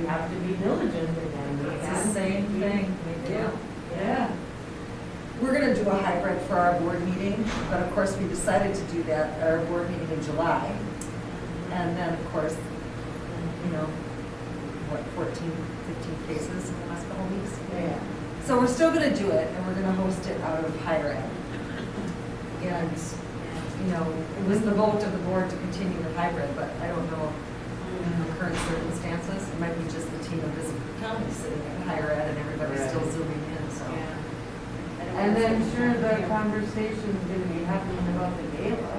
have to be diligent in that. We It's the have to same be- thing we do. Yeah. We're gonna do a hybrid for our board meeting, but of course, we decided to do that at our board meeting in July. And then, of course, you know, what, 14, 15 cases in the last couple of weeks? Yeah. So we're still gonna do it, and we're gonna host it out of higher ed. And, you know, it was the vote of the board to continue the hybrid, but I don't know, in the current circumstances, it might be just the team of this county sitting at higher ed and everybody's still Right. zooming in, so. And then sure, the conversation's gonna be happening about the gala.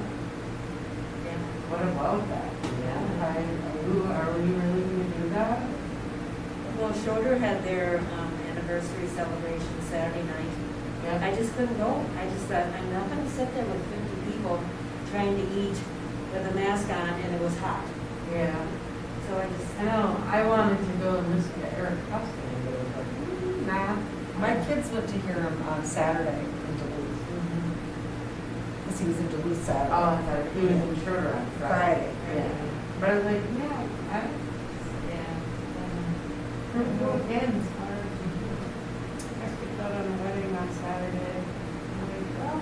What about that? Yeah. Are you, are we really gonna do that? Well, Schroeder had their um, anniversary celebration Saturday night. Yeah. I just couldn't go. I just thought, I'm not gonna sit there with fifty people trying to eat with a mask on and it was hot. Yeah. So I just, I know, I wanted to go and listen to Eric Clapton, but it was like, mm, nah. My kids went to hear him on Saturday in Duluth, because he was in Duluth Oh, Saturday. I thought he was in Schroeder on Friday. Friday. Yeah. But I was um, like, yeah, I, yeah. Don't go again, it's hard. I picked out on a wedding on Saturday. I'm like, well,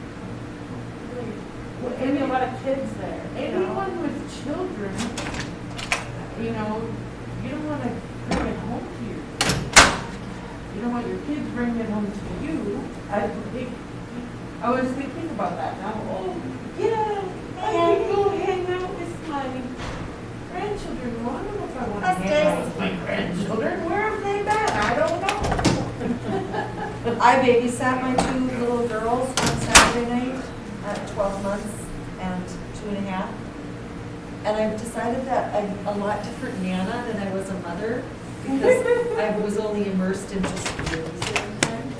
really, well, And a lot of kids there. Anyone with children, you know, you don't want to bring it home to your kids. You don't want your kids bringing it home to you. I think, I was thinking about that now. Oh, yeah, I can go hang out with my grandchildren. Well, I don't know if I want to hang out with my grandchildren. Where have they been? I don't know. I babysat my two little girls on Saturday night at 12 months and two and a half. And I've decided that I'm a lot different Nana than I was a mother because I was only immersed in just babies the whole time.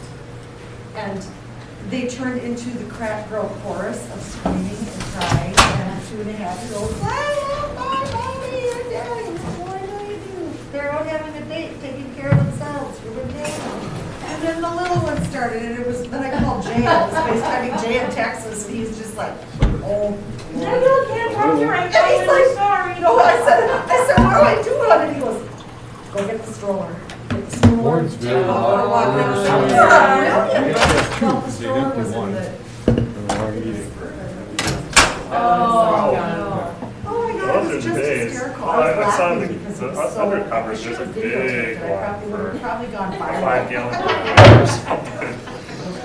And they turned into the crack girl chorus of screaming and crying and two and a half year olds. They're out having a date, taking care of themselves, you're with Nana. And then the little one started, and it was, then I called Jay, I was FaceTiming Jay in Texas, and he's just like, oh. I don't care, I'm right And he's now, like, I'm sorry. no, I said, I said, what do I do about it? And he goes, go get the stroller. Get the stroller. Warrensville. Go for a walk." And Warrensville. I was like, "Yeah, really?" We have two, Well, the because they stroller didn't do was in one. the- Oh, Oh, Oh my God, it was Those just are big. hysterical. I was I I saw the, laughing because the it was so. I undercovers, should there's a have videotaped big it. I one probably would for have probably gone viral. five gallon containers. no.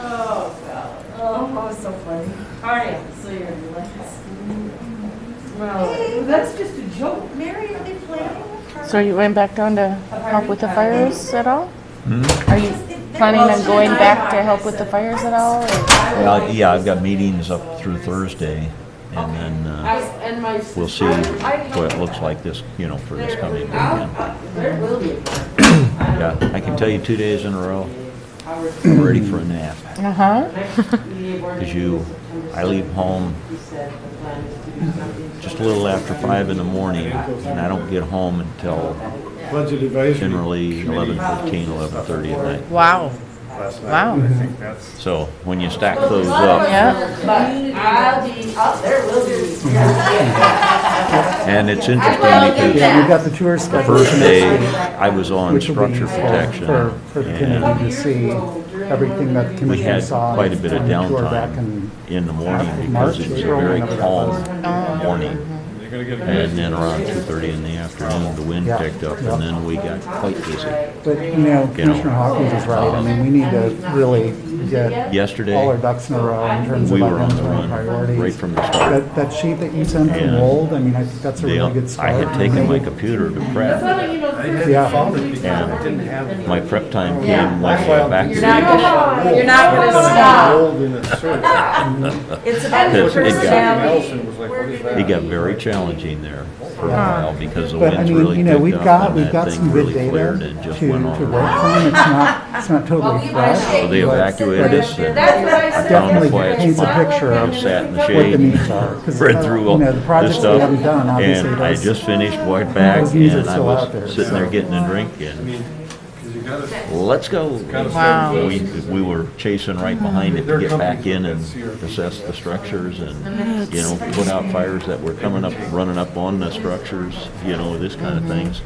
Oh, God. Oh, that was so funny. All right, so you're last. Well, that's just a joke. Mary, are they planning? a car- Oh, So you went back down to help with the fires at all? Are you planning Well, on she going and I back are, to help I with the said. fires at all? or- Well, yeah, I've got meetings up through Thursday, and then I, uh, and my. sis- we'll see I- I- what it looks like this, you know, for this There- coming I'll- weekend. I'll- There will be. Yeah, I can tell you two days in a row, Howard- I'm ready for a nap. Uh-huh. Next meeting board As meeting you- is September I leave 7th. home He said the plan is to do something just a similar. little after five in the morning, and I don't get home until Budget advisory. generally Committee. 11:15, 11:30 at night. Wow, Last night, Wow. I think that's. So when you stack Well, a those lot of us up, Yeah. are- But I'll be, I'll, there will be. and it's I interesting will get because Yeah, we that. got the tour schedule, first day, I was on which will be structure useful protection, for, for the and committee to see everything that the we commission had saw. quite a bit of on the tour back downtime in- in the morning March, because it was a April, very whenever that calm was. morning. You're gonna get. And then around two thirty in the afternoon, the wind Yeah. picked up and then we got quite busy. But, you You know, know. Commissioner Hawkins is right, I mean, we need to really get all our Yesterday, ducks in a row in terms of we were on the run identifying right priorities. from the start. That, that sheet that you sent from And Wold, I mean, I think that's a They- really good I start. had taken my computer to That's prep. why, you know, the first Yeah. time we And talked, didn't have- My prep time Yeah. came when I got back You're not to gonna, you're not gonna Put it in stop. Rolled in a shirt. It's about Because it got- personality. Nelson was like, what is it. It got that? very challenging there for a while because the But I winds mean, really you know, picked we've up got, and we've that got some thing good really flared data and to, just to went work all from, around. it's not, it's not Well, totally we fresh. appreciate- So they evacuated us and That's what I said. Definitely yesterday. paints a It's not picture like of I'm sat in gonna the What pick the up shade. needs are. 'cause, read through all you know, the this projects we stuff. haven't done, obviously, And I does- just finished, went back Those needs are and I still out there, was sitting there so. getting a drink I and, mean, 'cause you gotta. let's go. gotta Wow. serve We, those. we were chasing right behind it There to are get back companies in that and CRP. assess the structures and, you know, put out fires that were coming up, running up on the structures, you know, this kind of things.